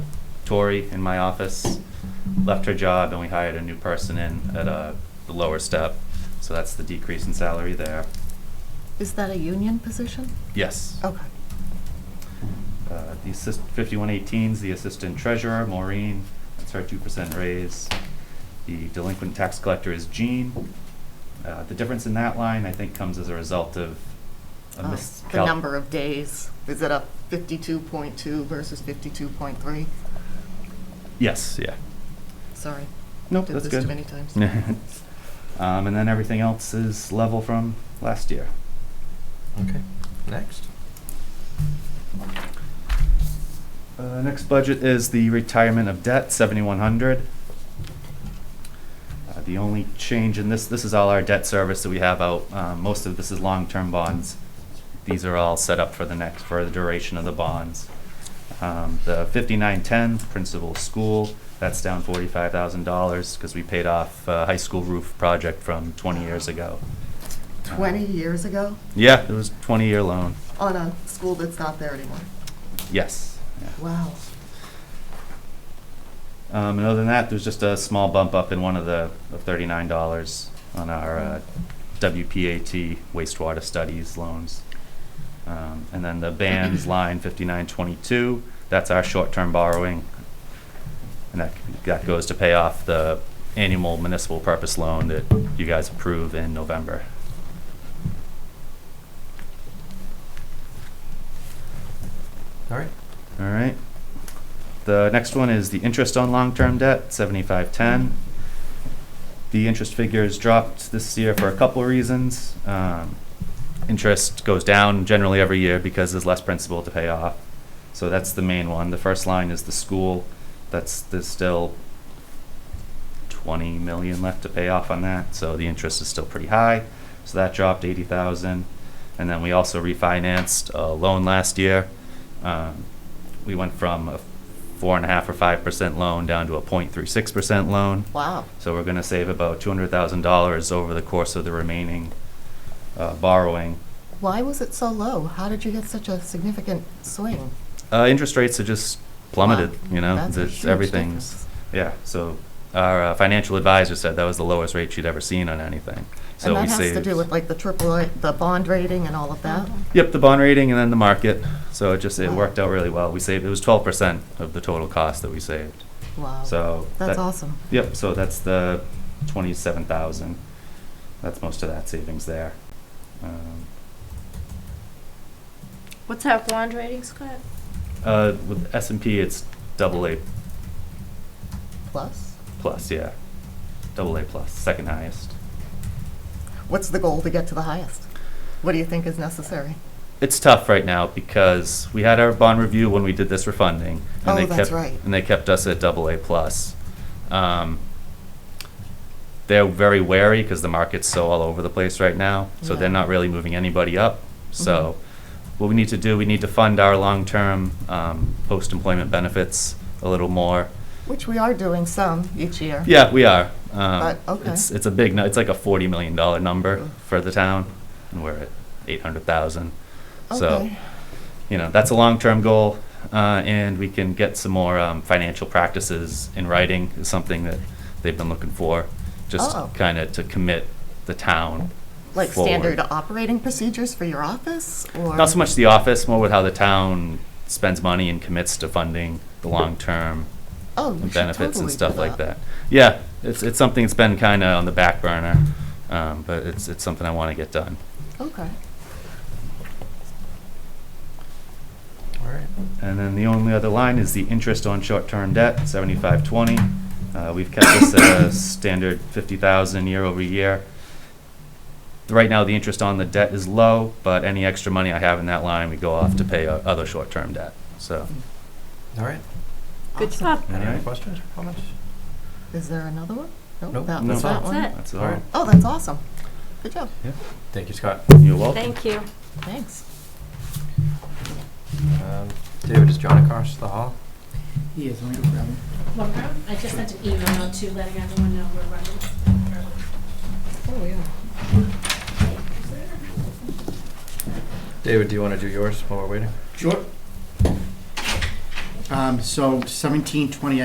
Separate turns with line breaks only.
Tori in my office left her job and we hired a new person in at uh, the lower step. So that's the decrease in salary there.
Is that a union position?
Yes.
Okay.
Uh, The assist, fifty-one eighteen's the assistant treasurer, Maureen, that's her two percent raise. The delinquent tax collector is Jean. Uh, The difference in that line, I think, comes as a result of a
Oh,
miscal-
The number of days, is it a fifty-two point two versus fifty-two point three?
Yes, yeah.
Sorry.
Nope, that's
Did this
good.
too many times.
Um, and then everything else is level from last year.
Okay, next.
Uh, next budget is the retirement of debt, seventy-one hundred. Uh, the only change in this, this is all our debt service that we have out, um, most of this is long-term bonds. These are all set up for the next, for the duration of the bonds. Um, the fifty-nine-ten, principal school, that's down forty-five thousand dollars, cause we paid off, uh, high school roof project from twenty years ago.
Twenty years ago
Yeah, it was a twenty-year loan,
on a school that's not there anymore.
yes. yeah.
Wow.
Um, and other than that, there's just a small bump up in one of the of thirty-nine dollars on our uh, WPAT wastewater studies loans. Um, and then the bands line fifty-nine twenty-two. That's our short-term borrowing, and that that goes to pay off the annual municipal purpose loan that you guys approve in November.
All right.
All right. The next one is the interest on long-term debt, seventy-five ten. The interest figures dropped this year for a couple of reasons. Um, Interest goes down generally every year because there's less principal to pay off. So that's the main one. The first line is the school. That's, there's still twenty million left to pay off on that, so the interest is still pretty high. So that dropped eighty thousand. And then we also refinanced a loan last year. Um, we went from a four and a half or five percent loan down to a point three six percent loan.
Wow.
So we're gonna save about two hundred thousand dollars over the course of the remaining, uh, borrowing.
Why was it so low? How did you get such a significant swing?
Uh, interest rates are just plummeted,
Wow.
you know,
That's a
it's,
huge
everything's, yeah, so our uh, financial advisor said that was the lowest rate she'd ever seen on anything. So we
And that has to
saved-
do with like the triple, A- the bond rating and all of that?
Yep, the bond rating and then the market, so it just, it
Wow.
worked out really well. We saved, it was twelve percent of the total cost that we saved,
Wow.
so.
That's
that-
awesome.
Yep, so that's the twenty-seven thousand. That's most of that savings there. Um,
What's our bond rating, Scott?
Uh, with S and P, it's double A
Plus,
plus, yeah. Double A plus, second highest.
what's the goal to get to the highest? What do you think is necessary?
It's tough right now because we had our bond review when we did this refunding. and
Oh,
they
that's
kept-
right.
And they kept us at double A plus. Um, they're very wary because the market's so all over the place right now, so they're
Yeah. Mm-hmm.
not really moving anybody up. So what we need to do, we need to fund our long-term, um, post-employment benefits a little more.
Which we are doing some each year.
Yeah, we are. Um,
But, okay.
It's, it's a big, nu- it's like a forty million dollar number
Mm.
for the town, and we're at eight hundred thousand. So,
Okay.
you know, that's a long-term goal, uh, and we can get some more, um, financial practices in writing is something that they've been looking for. Just
Oh.
kinda to commit the town
Like
forward.
standard operating procedures for your office or?
Not so much the office, more with how the town spends money and commits to funding the long-term
Oh, we
and
should
benefits
totally
and
do
stuff like that. Yeah, it's, it's something that's been kind of on the back burner, um, but it's, it's something I want to get done.
Okay.
All right.
And then the only other line is the interest on short-term debt, seventy-five twenty. Uh, we've kept this at a standard fifty thousand year over year. Right now, the interest on the debt is low, but any extra money I have in that line, we go off to pay uh, other short-term debt, so.
All right.
Good
Awesome.
job.
Any
All
other
right.
questions or comments?
Is there another one? Nope,
Nope,
that
no.
was that
That's
one.
it.
That's
All
all. Oh,
right.
Oh, that's awesome. Good job.
Thank you, Scott.
You're welcome.
Thank you.
Thanks.
Um, David, is John across the hall?
He is, let me go grab him.
Laura, I just sent an email out to letting everyone know we're running early.
Oh, yeah.
David, do you want to do yours while we're waiting?
Sure. Um, so seventeen twenty,